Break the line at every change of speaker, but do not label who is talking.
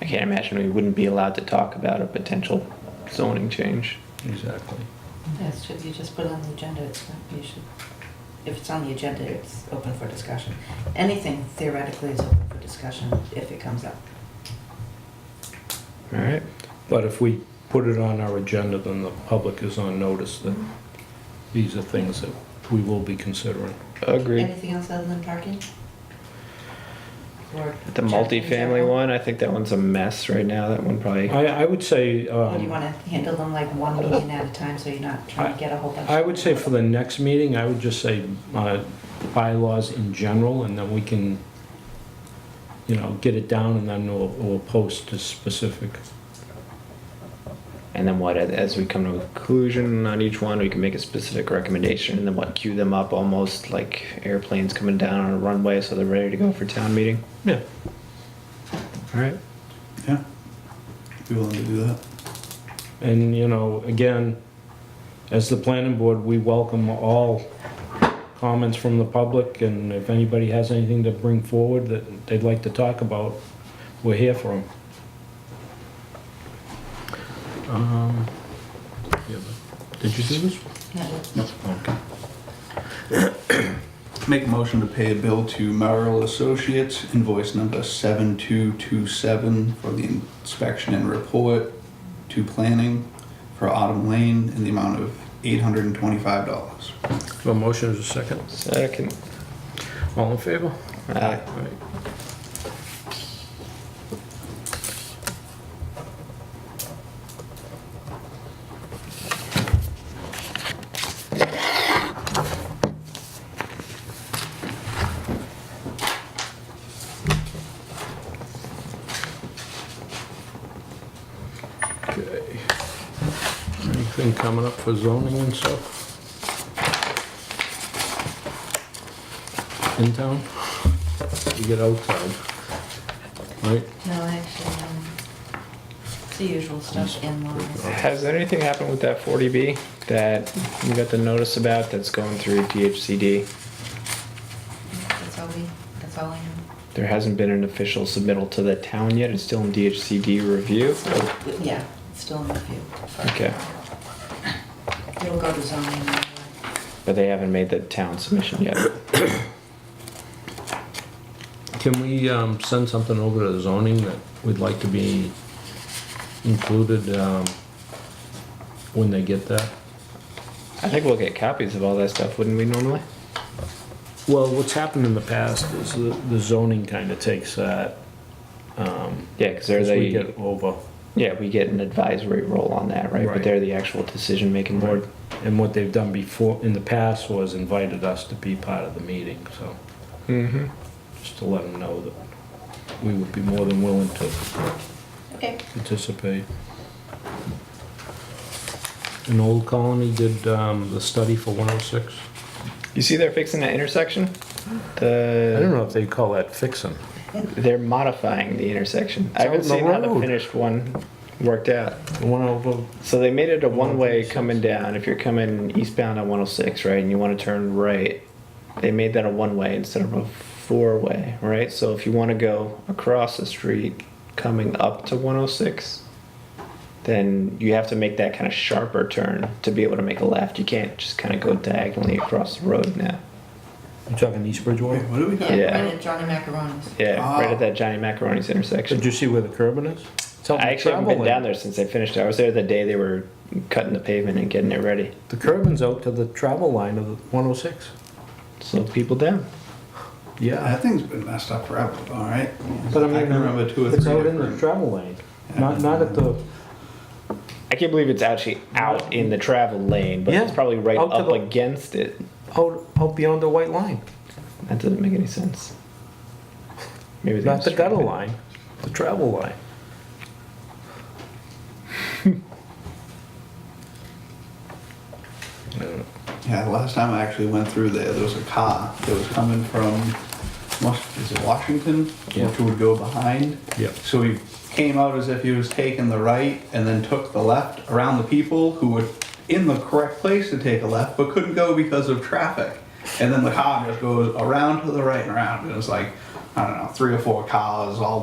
I can't imagine we wouldn't be allowed to talk about a potential zoning change.
Exactly.
Yes, ju- you just put it on the agenda, it's, not- you should, if it's on the agenda, it's open for discussion. Anything theoretically is open for discussion if it comes up.
All right.
But if we put it on our agenda, then the public is on notice that these are things that we will be considering.
Agreed.
Anything else other than parking? Or
The
traffic in
multifamily
general?
one, I think that one's a mess right now. That one probably.
I, I would say,
Or do you
um,
wanna handle them like one meeting at a time, so you're not trying to get a whole bunch?
I would say for the next meeting, I would just say uh, bylaws in general, and then we can, you know, get it down, and then we'll, we'll post a specific.
And then what, as we come to a conclusion on each one, we can make a specific recommendation and then what, queue them up almost like airplanes coming down on a runway so they're ready to go for town meeting?
Yeah.
All right.
Yeah. Be willing to do that.
And, you know, again, as the planning board, we welcome all comments from the public, and if anybody has anything to bring forward that they'd like to talk about, we're here for them. Um, yeah, but- Did you do this?
Network.
Okay.
Make a motion to pay a bill to Merrill Associates, invoice number 7227 for the inspection and report to planning for Autumn Lane in the amount of $825.
A motion is a second.
Second.
All in favor?
Aye.
Right. Okay. Anything coming up for zoning and stuff? In town? You get outside, right?
No, actually, um, it's the usual stuff in laws.
Has anything happened with that 40B that we got the notice about that's going through DHCD?
That's all we, that's all I know.
There hasn't been an official submittal to the town yet. It's still in DHCD review.
Yeah, it's still in review.
Okay.
It'll go to zoning.
But they haven't made the town submission yet.
Can we um, send something over to the zoning that we'd like to be included um, when they get that?
I think we'll get copies of all that stuff, wouldn't we normally?
Well, what's happened in the past is the the zoning kind of takes that. um,
Yeah, because they're
as we
the,
get over.
yeah, we get an advisory role on that, right? But
Right.
they're the actual decision-making board.
And what they've done before, in the past, was invited us to be part of the meeting, so
Mm-hmm.
just to let them know that we would be more than willing to
Okay.
participate. An Old Colony did um, the study for 106.
You see they're fixing that intersection?
I don't
The,
know if they call that fixing.
they're modifying the intersection. I
It's out
haven't
in the
seen how the
road.
finished one worked out.
The one oh, over,
So they made it a one-way
106.
coming down. If you're coming eastbound on 106, right, and you want to turn right, they made that a one-way instead of a four-way, right? So if you want to go across the street coming up to 106, then you have to make that kind of sharper turn to be able to make a left. You can't just kind of go diagonally across the road now.
you talking East
Wait,
Bridgewater?
what do we got?
Yeah.
Right at Johnny Macaroni's.
Yeah, right
Ah.
at that Johnny Macaroni's intersection.
Did you see where the curbing is? It's out in
I
the
actually haven't been
travel
down
lane.
there since I finished. I was there the day they were cutting the pavement and getting it ready.
The curbing's out to the travel line of oh the 106.
Slow people down.
Yeah.
That thing's been messed up forever, all right?
But I mean,
can remember two or three
It's out in the
different-
travel lane, not, not at the,
I can't believe it's actually out in the travel lane, but it's
Yeah,
probably right
out to
up
the-
against it.
out, out beyond the white line,
That doesn't make any sense. Maybe they
not
just
the gutter
strip it.
line, the travel line. I don't know.
Yeah, the last time I actually went through there, there was a car that was coming from, must, is it Washington?
Yeah.
Which would go behind.
Yeah.
So he came out as if he was taking the right and then took the left around the people who were in the correct place to take a left but couldn't go because of traffic. And then the car just goes around to the right and around. And it was like, I don't know, three or four cars all